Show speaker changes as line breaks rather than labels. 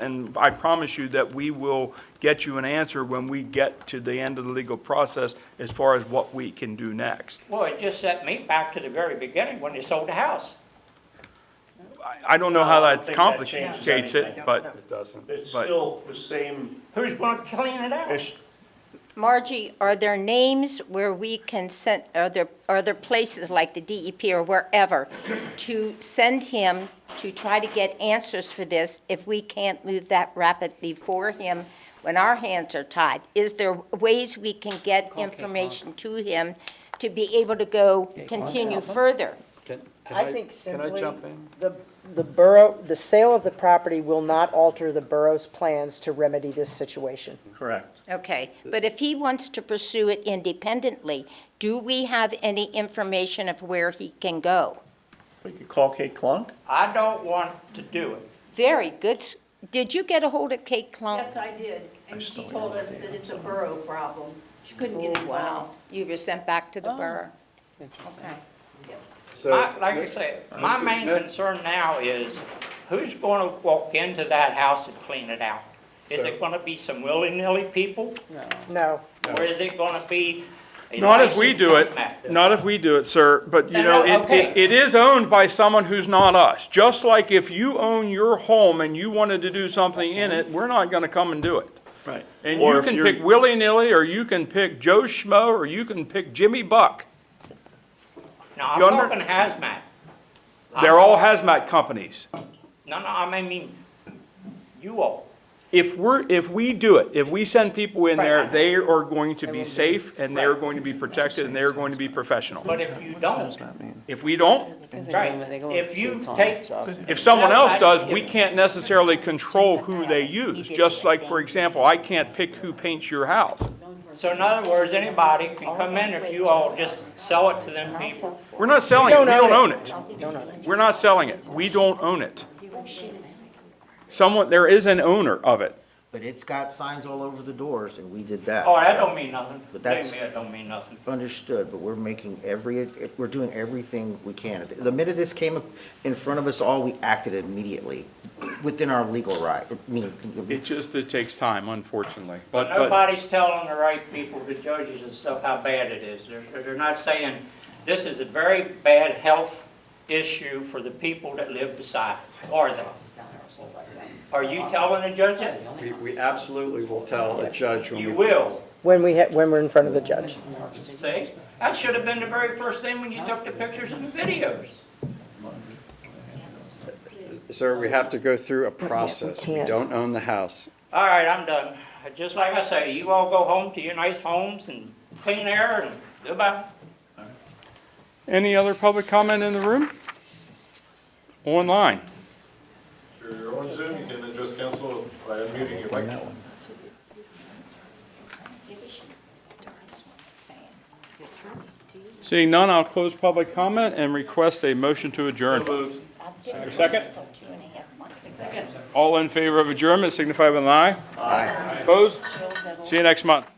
And I promise you that we will get you an answer when we get to the end of the legal process as far as what we can do next.
Well, it just set me back to the very beginning when they sold the house.
I- I don't know how
I don't
that
think that changes
complicates it,
anything.
but
It doesn't.
It's
But-
still the same,
Who's gonna clean it out?
it's,
Margie, are there names where we can send, are there, are there places like the DEP or wherever to send him to try to get answers for this if we can't move that rapidly for him when our hands are tied? Is there ways we can get information to him to be able to go continue further?
Can, can
I think
Can I
simply,
jump in?
the, the borough, the sale of the property will not alter the borough's plans to remedy this situation.
correct.
Okay, but if he wants to pursue it independently, do we have any information of where he can go?
We could call Kate Clunk.
I don't want to do it.
Very good. S- Did you get a hold of Kate Klum?
Yes, I did, and she told us that it's a borough problem. She couldn't get involved.
You were sent back to the borough?
So,
My- Like I said, my
Mr.
main
Smith?
concern now is who's gonna walk into that house and clean it out? Is
So-
it gonna be some willy-nilly people,
No,
or is it gonna be a
not if we
licensed
do it,
hazmat?
not if we do it, sir, but you
No,
know,
no,
it,
okay.
it- it is owned by someone who's not us. Just like if you own your home and you wanted to do something in it, we're not gonna come and do it.
Right.
And you can pick willy-nilly, or you can pick Joe Schmo, or you can pick Jimmy Buck.
No, I'm
You under-
talking hazmat. I'm
They're all
talking-
hazmat companies.
No, no, I mean, you all.
If we're, if we do it, if we send people in there,
Right.
they are going to be safe, and they're going to be protected, and they're going to be professional.
But if you don't,
If we don't,
right, if you take,
if someone else does, we can't necessarily control who they use. Just like, for example, I can't pick who paints your house.
so in other words, anybody can come in if you all just sell it to them people.
We're not selling it, we don't own it. We're not selling it, we don't own it. Someone, there is an owner of it.
But it's got signs all over the doors, and we did that.
Oh, that don't mean nothing. Believe
But that's-
me, it don't mean nothing.
Understood, but we're making every, we're doing everything we can. The minute this came in front of us all, we acted immediately, within our legal right, I mean,
It just, it takes time, unfortunately, but, but,
Nobody's telling the right people, the judges and stuff, how bad it is. They're, they're not saying, this is a very bad health issue for the people that live beside, it," are they? Are you telling the judge that?
we, we absolutely will tell a judge when we.
You will,
when we, ha- when we're in front of the judge.
see? That should have been the very first thing when you took the pictures and the videos.
Sir, we have to go through a process. We
can't.
don't own the house.
All right, I'm done. Just like I say, you all go home to your nice homes and clean air and goodbye.
any other public comment in the room? Online?
Sure, you're on Zoom, you can address council by unmuting your mic.
Seeing none, I'll close public comment and request a motion to adjourn. Second? All in favor of adjournment signify with an aye. Aye. Opposed? See you next month.